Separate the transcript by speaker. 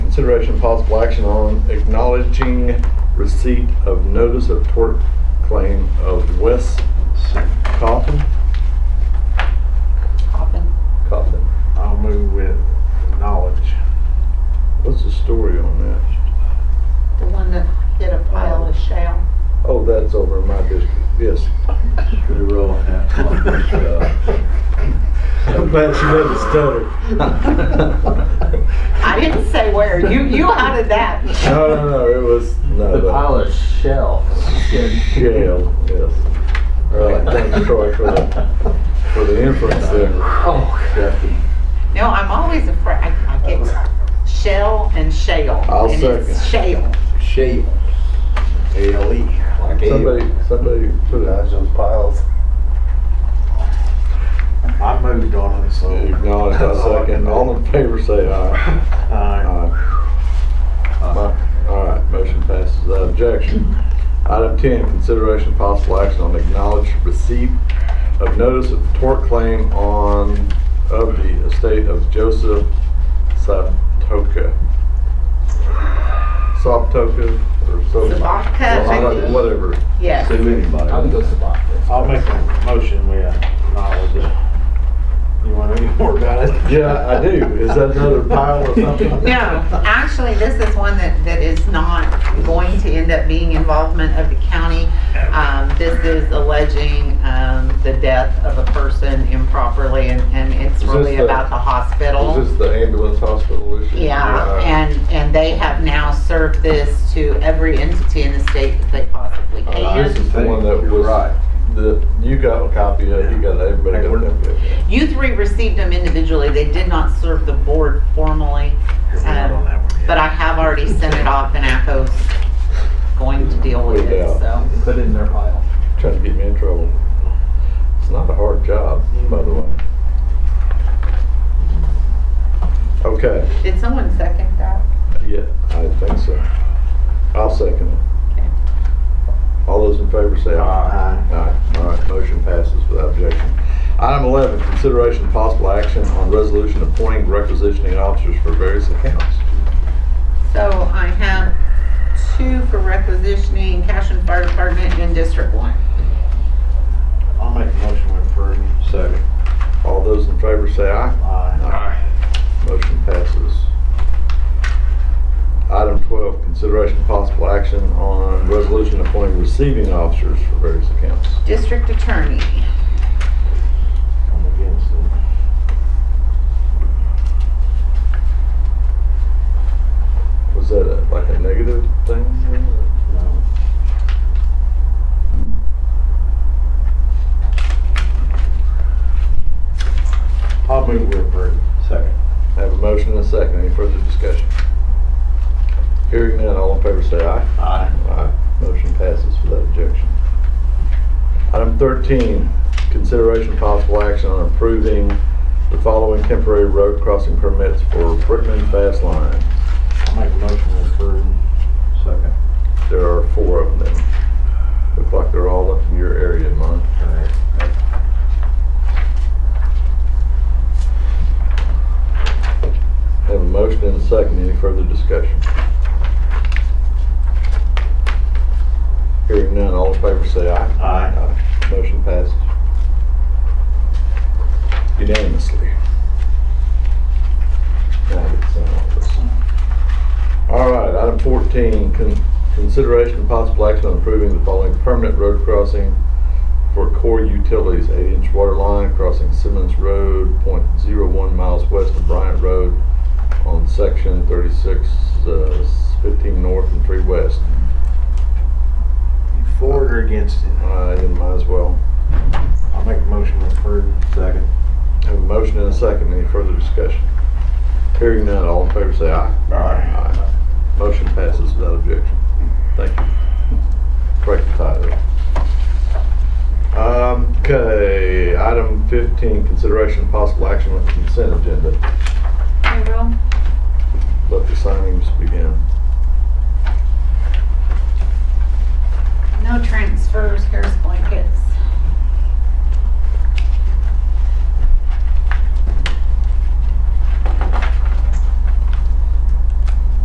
Speaker 1: Consideration of possible action on acknowledging receipt of notice of tort claim of Wes Coffin.
Speaker 2: Hopping.
Speaker 1: Coffin.
Speaker 3: I'll move with knowledge.
Speaker 1: What's the story on that?
Speaker 2: The one that hit a pile of shale.
Speaker 1: Oh, that's over in my district. Yes.
Speaker 4: Pretty roll on that one, but,
Speaker 3: I'm glad she doesn't stutter.
Speaker 2: I didn't say where. You, you added that.
Speaker 1: No, no, no. It was no.
Speaker 4: The
Speaker 1: that-
Speaker 4: pile of shell.
Speaker 1: Jail. Yes. All right. Thanks, Troy, for the for the inference there.
Speaker 4: Oh.
Speaker 1: Yeah.
Speaker 2: No, I'm always afraid. I, I get shell and shale.
Speaker 1: I'll
Speaker 2: and It's shale.
Speaker 4: Shale. A-L-E. Like
Speaker 1: E.
Speaker 4: E.
Speaker 1: Somebody, somebody put
Speaker 5: Dodge
Speaker 1: a
Speaker 5: those piles.
Speaker 3: I moved on it, so.
Speaker 1: acknowledge. I second. All in favor, say aye.
Speaker 3: Aye.
Speaker 1: Aye.
Speaker 4: Uh,
Speaker 1: My- All right, motion passes without objection. Item 10, consideration of possible action on acknowledged receipt of notice of tort claim on, of the estate of Joseph Saptoka. Saptoka or so.
Speaker 2: Saptoka, I think.
Speaker 1: Whatever.
Speaker 2: Yes.
Speaker 4: I would go
Speaker 1: anybody.
Speaker 4: Sabacco.
Speaker 3: I'll make a motion uh, with knowledge. You want any more about it?
Speaker 1: Yeah, I do. Is that another pile or something?
Speaker 2: No, actually, this is one that, that is not going to end up being involvement of the county. Um, this is alleging, um, the death of a person improperly and, and it's
Speaker 1: Is this
Speaker 2: really
Speaker 1: the-
Speaker 2: about the hospital.
Speaker 1: Is this the ambulance hospital issue?
Speaker 2: Yeah, and, and they have now served this to every entity in the state that they possibly
Speaker 3: Oh,
Speaker 1: Uh, This
Speaker 2: can.
Speaker 1: is the one that
Speaker 4: You're
Speaker 1: was,
Speaker 4: right.
Speaker 1: the, you got a copy of, it, you got, it, everybody got a copy of it.
Speaker 2: You three received them individually, they did not serve the board formally,
Speaker 3: We're not on that one yet.
Speaker 2: Um, but I have already sent it off and ACO's going to deal with it, so.
Speaker 4: Put it in their pile.
Speaker 1: Trying to get me in trouble. It's not a hard job, by the way. Okay,
Speaker 2: Did someone second that?
Speaker 1: yeah, I think so. I'll second it.
Speaker 2: Okay.
Speaker 1: All those in favor say aye.
Speaker 3: Aye.
Speaker 1: Aye, all right, motion passes without objection. Item 11, consideration of possible action on resolution appointing requisitioning officers for various accounts.
Speaker 2: So I have two for requisitioning, cash and fire department in District One.
Speaker 3: I'll make a motion with approve.
Speaker 1: Second. All those in favor say aye.
Speaker 3: Aye.
Speaker 1: Motion passes. Item 12, consideration of possible action on resolution appointing receiving officers for various accounts.
Speaker 2: District Attorney,
Speaker 3: I'm against it.
Speaker 1: Was that a- like a negative thing?
Speaker 3: No. I'll move with approve.
Speaker 4: Second.
Speaker 1: I Have a motion and a second. Any further discussion? Hearing none, all in favor say aye.
Speaker 3: Aye.
Speaker 1: Aye. Motion passes without objection. Item 13, consideration of possible action on approving the following temporary road crossing permits for Brickman Fast Line.
Speaker 3: I'll make a motion with approve.
Speaker 4: Second.
Speaker 1: There are four of them. Look like they're all up in your area, Mon.
Speaker 3: Correct.
Speaker 1: Have a motion and a second. Any further discussion? Hearing none, all in favor say aye.
Speaker 3: Aye.
Speaker 1: Aye. Motion passes unanimously. Now I get to sign all this. All right, item 14, con- consideration and possible action on approving the following permanent road crossing for core utilities, 8-inch water line crossing Simmons Road, .01 miles west of Bryant Road on section 36, uh, 15 north and 3 west.
Speaker 3: You For it or against it?
Speaker 1: I might as well.
Speaker 3: I'll make a motion with approve.
Speaker 4: Second.
Speaker 1: Have a motion and a second. Any further discussion? Hearing none, all in favor say aye. Aye. Motion passes without objection. Thank you. Correct the tie there. Um, Okay, item 15, consideration of possible action on consent agenda.
Speaker 2: I will.
Speaker 1: Let the signings begin.
Speaker 2: No transfers, here's blankets.